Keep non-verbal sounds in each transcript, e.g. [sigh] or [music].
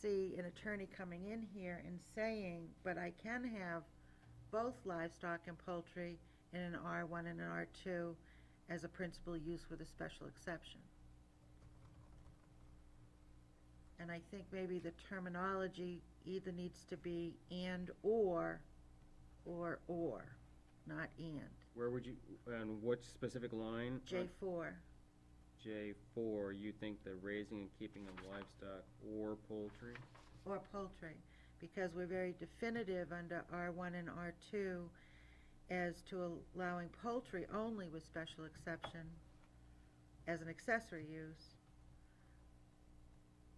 see an attorney coming in here and saying, but I can have both livestock and poultry in an R one and an R two as a principal use with a special exception. And I think maybe the terminology either needs to be and/or, or, or, not and. Where would you, on which specific line? Uh, J four, J four, you think the raising and keeping of livestock or poultry? or poultry, because we're very definitive under R one and R two as to allowing poultry only with special exception as an accessory use.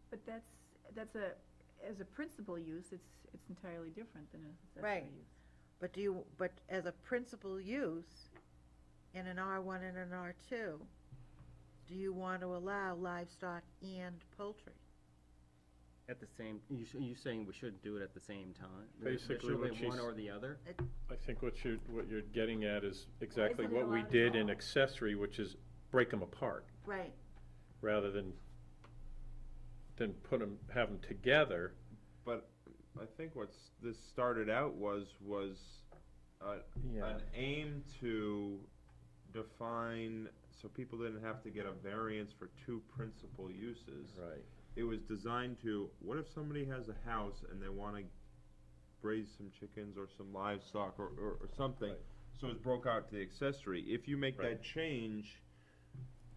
But that's, that's a, as a principal use, it's, it's entirely different than a Right. accessory use. But do you, but as a principal use in an R one and an R two, do you want to allow livestock and poultry? At the same, you, s- you saying we shouldn't do it at the same time? There- there Basically shouldn't what be she's- One or the other? I think what you, what you're getting at is exactly isn't it what we allowed at did in all? accessory, which is break them apart, Right, rather than, than put them, have them together. But I think what's, this started out was, was uh, an aim to define, so people didn't have to get a variance for two principal uses. Right. It was designed to, what if somebody has a house and they wanna raise some chickens or some livestock or, or, or something? Right. So it's broke out to the accessory. If you make Right. that change,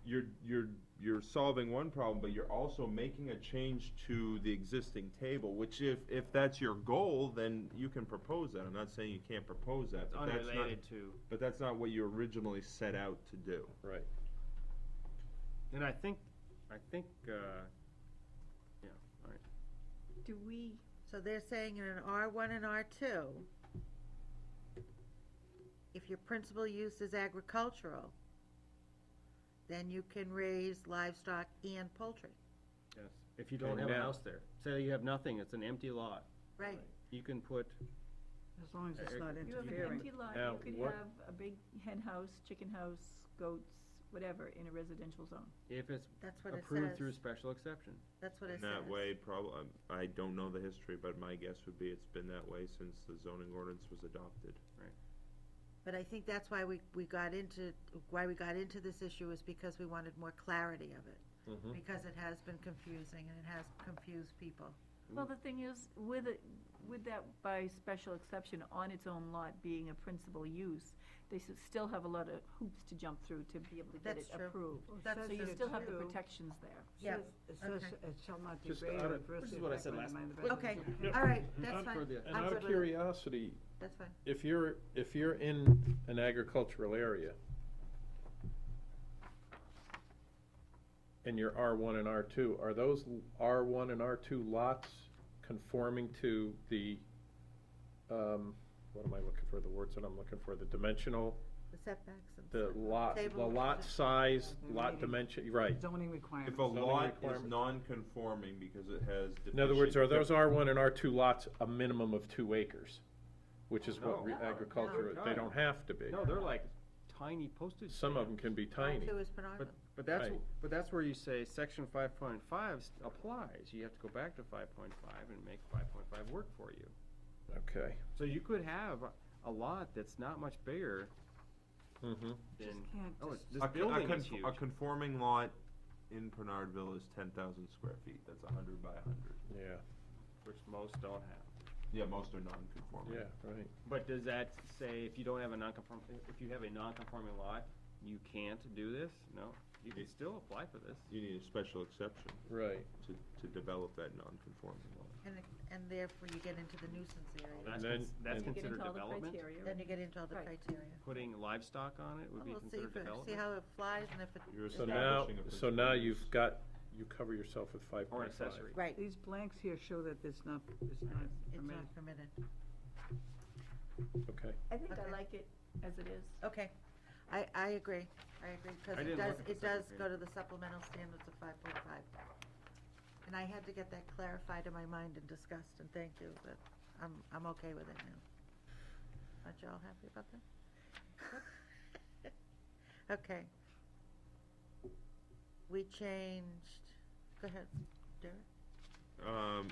you're, you're, you're solving one problem, but you're also making a change to the existing table, which if, if that's your goal, then you can propose that. I'm not saying you can't propose that, but that's not, Unrelated to. but that's not what you originally set out to do. Right. And I think, I think, uh, yeah, all right. Do we, so they're saying in an R one and R two, if your principal use is agricultural, then you can raise livestock and poultry, Yes. If you don't Okay, have a now- house there, say you have nothing, it's an empty lot, right? you can put, As long as it's Uh, not you have an interfering. empty lot, Now, you could what- have a big hen house, chicken house, goats, whatever, in a residential zone. if it's That's what it approved through says. special exception. That's what it In says. that way, probably, I don't know the history, but my guess would be it's been that way since the zoning ordinance was adopted. But I think that's why we, we got into, why we got into this issue is because we wanted more clarity of it. Mhm. Because it has been confusing and it has confused people. Well, the thing is, with it, with that by special exception on its own lot being a principal use, they s- still have a lot of hoops to jump through to be able to get it That's true. approved. Well, That's So you true. still have the Two. protections there. Yeah, Says- It says okay. it shall not Just degrade out or of- adversely which is what I affect said one last of time. the Okay, Yep. all right, that's Not for fine, the- And out of Absolutely. curiosity, that's fine. if you're, if you're in an agricultural area, and your R one and R two, are those R one and R two lots conforming to the, um, what am I looking for, the words that I'm looking for, the dimensional, The setbacks and. the lot, the Table. lot size, lot Remaining. dimension, right. Zoning If requirements. a Zoning lot is requirement. non-conforming because it has deficient. In other words, are those R one and R two lots a minimum of two acres? Which is what re- Oh, No. agriculture, No. they don't have to be. No, they're like tiny postage. Some of them stamps. can be tiny. Two is Penarville. But, but that's, Right. wh- but that's where you say section five point five applies, you have to go back to five point five and make five point five work for you. Okay. So you could have a- a lot that's not much bigger Mm-hmm. than, can't oh, it's- just- this A con- a building is conf- huge. A conforming lot in Pernardville is ten thousand square feet, that's a hundred by a hundred. Yeah, Which most don't have. Yeah, most are non-conforming. yeah, right. But does that say if you don't have a non-conform, if you have a non-conforming lot, you can't do this? No, you can still apply for this. You need a special exception Right. to, to develop that non-conforming lot. And, and therefore you get into the nuisance area. That's, then- cons- that's and- You get into considered all the development? criteria. Then you get into all the Right. criteria. Putting livestock on it would Well, be Oh, we'll see considered first, See development? how it flies and if it. You're is So that- now, Establishing a so now principal you've use. got, you cover yourself with five Or point an five. accessory? Right, These blanks here show that it's not, it's not it's permitted. not permitted. Okay. I think I Okay. like it as it is. Okay, I, I agree, I agree, I because it didn't does, look at the it does second go to the supplemental standards of five point five. And I had to get that clarified in my mind and discussed, and thank you, but I'm, I'm okay with it now. Aren't y'all happy about that? [laughs] Okay. We changed, go ahead, Derek. Um,